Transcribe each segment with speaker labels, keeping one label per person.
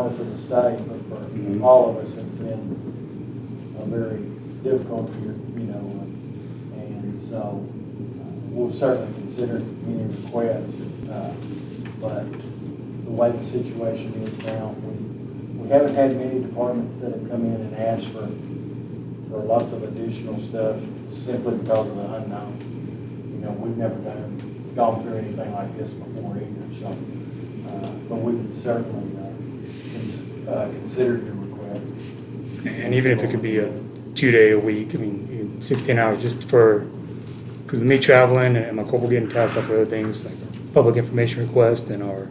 Speaker 1: only for the state, but
Speaker 2: Mhm.
Speaker 1: for all of us, it's been a very difficult year, you know, and so uh, we'll certainly consider any requests, uh, but the way the situation is now, we, we haven't had many departments that have come in and asked for, for lots of additional stuff simply because of the unknown. You know, we've never done, gone through anything like this before either, so, uh, but we can certainly, uh, cons- uh, consider your request.
Speaker 2: And even if it could be a two-day a week, I mean, sixteen hours, just for, because me traveling and my corporal getting tasked off with other things, like public information requests and our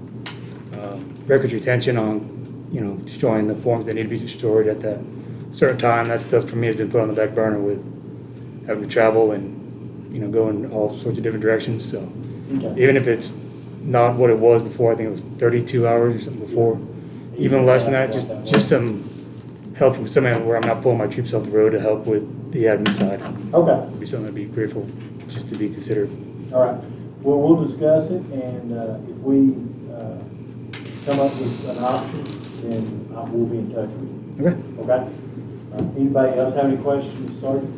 Speaker 2: um, records retention on, you know, destroying the forms that need to be destroyed at that certain time, that stuff for me has been put on the back burner with having to travel and, you know, go in all sorts of different directions, so.
Speaker 1: Okay.
Speaker 2: Even if it's not what it was before, I think it was thirty-two hours or something before, even less than that, just, just some help from somebody where I'm not pulling my troops off the road to help with the admin side.
Speaker 1: Okay,
Speaker 2: Would be something I'd be grateful just to be considered.
Speaker 1: all right. Well, we'll discuss it, and uh, if we uh, come up with an option, then I will be in touch with
Speaker 2: Okay.
Speaker 1: you, okay? Uh, Anybody else have any questions, Sergeant?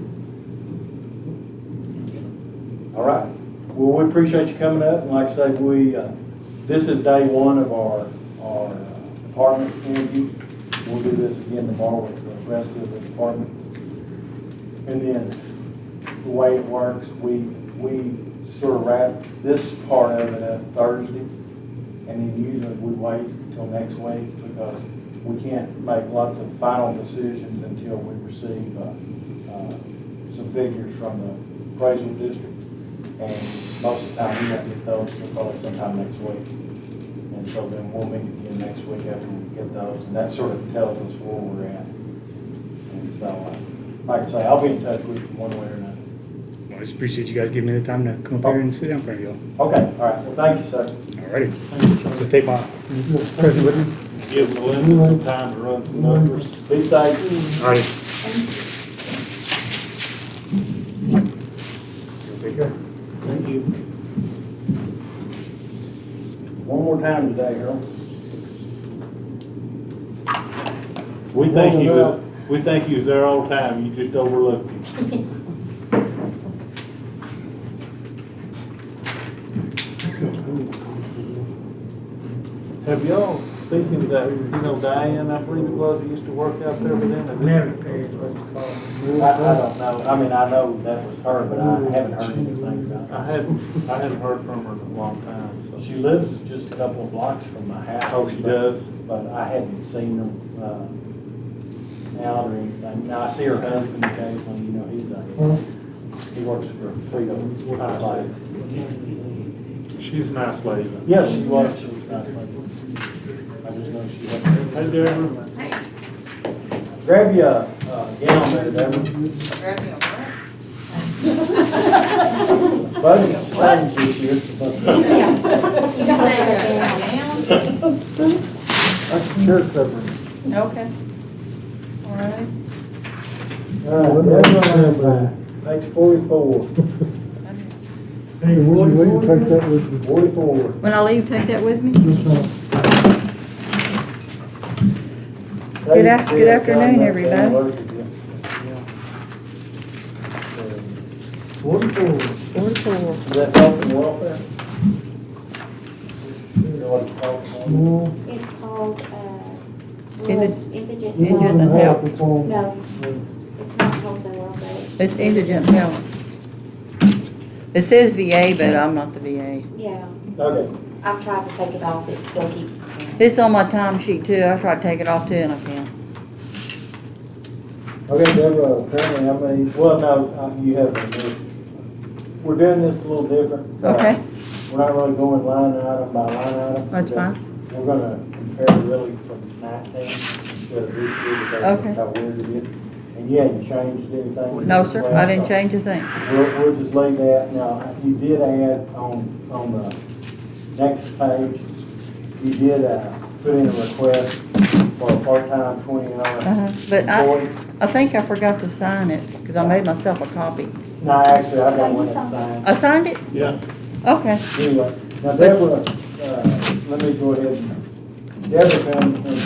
Speaker 1: All right. Well, we appreciate you coming up, and like I say, we, uh, this is day one of our, our uh, department interview. We'll do this again tomorrow with the rest of the departments. And then the way it works, we, we sort of wrap this part of it up Thursday. And then usually we wait until next week because we can't make lots of final decisions until we receive, uh, uh, some figures from the appraisal district. And most of the time, we have to get those till probably sometime next week. And so then we'll meet again next week after we get those. And that sort of tells us where we're at. And so, uh, like I say, I'll be in touch with you one way or another.
Speaker 2: I just appreciate you guys giving me the time to come up here and sit down in front of y'all.
Speaker 1: Okay, all right, well, thank you, sir.
Speaker 2: Alrighty. So take my present with me.
Speaker 3: Gives Linda some time to run some numbers.
Speaker 1: Be safe.
Speaker 2: Alrighty. Take care.
Speaker 3: Thank you.
Speaker 1: One more time today, Harold.
Speaker 3: We think he was, we think he was there all the time, you just overlooked him. Have y'all, speaking of that, you know Diane, I believe it was, who used to work out there with them?
Speaker 4: Mary Kay is what you call
Speaker 1: I,
Speaker 4: it.
Speaker 1: I don't know, I mean, I know that was her, but I haven't heard anything
Speaker 3: I
Speaker 1: about her.
Speaker 3: haven't, I haven't heard from her in a long time, so.
Speaker 1: She lives just a couple of blocks from my house.
Speaker 3: Oh, she
Speaker 1: but-
Speaker 3: does?
Speaker 1: But I haven't seen her, uh, out or anything. Now, I see her husband occasionally, you know, he's a, he works for Freedom. Highlight.
Speaker 3: She's a nice lady.
Speaker 1: Yeah, she was, she was nice lady. I just know she was.
Speaker 3: Hey, Deborah.
Speaker 1: Grab your, uh, gown there, Deborah. Buddy, thank you, dear. That's your covering.
Speaker 5: Okay. All right,
Speaker 1: Page forty-four.
Speaker 4: Hey,
Speaker 6: We
Speaker 4: what do
Speaker 6: we
Speaker 4: you
Speaker 6: can take that with me.
Speaker 1: Forty-four.
Speaker 5: When I leave, take that with me?
Speaker 6: That's all.
Speaker 5: Good af- good afternoon, everybody.
Speaker 1: Is
Speaker 4: Forty-four.
Speaker 5: Forty-four.
Speaker 1: that health and welfare? You know what it's called?
Speaker 6: Well,
Speaker 7: It's called, uh,
Speaker 5: Indi-
Speaker 7: World's Indigent
Speaker 6: we
Speaker 5: Indigent
Speaker 6: don't have
Speaker 7: Health.
Speaker 5: help.
Speaker 6: to call-
Speaker 7: No, it's not called the World Health.
Speaker 5: It's indigent health. It says VA, but I'm not the VA.
Speaker 7: Yeah,
Speaker 1: Okay,
Speaker 7: I've tried to take it off, it still keeps.
Speaker 5: It's on my time sheet too, I try to take it off too and I can't.
Speaker 1: okay, Deborah, apparently, I mean, well, no, uh, you have, a new- we're doing this a little different. Uh,
Speaker 5: Okay.
Speaker 1: We're not really going line item by line item.
Speaker 5: That's fine.
Speaker 1: We're gonna compare really from nineteen instead of this year, because
Speaker 5: Okay.
Speaker 1: of how weird it is. And you hadn't changed anything.
Speaker 5: No, sir, I didn't change a thing.
Speaker 1: We'll, we'll just leave that. Now, you did add on, on the next page, you did, uh, put in a request for a part-time twenty-hour
Speaker 5: Uh-huh. But I,
Speaker 1: employee.
Speaker 5: I think I forgot to sign it, because I made myself a copy.
Speaker 1: No, actually, I got
Speaker 7: No,
Speaker 1: one
Speaker 7: you
Speaker 1: that's
Speaker 7: signed it.
Speaker 1: signed.
Speaker 5: I signed it?
Speaker 3: Yeah.
Speaker 5: Okay.
Speaker 1: Anyway, now Deborah, uh, let me go ahead and, Deborah found,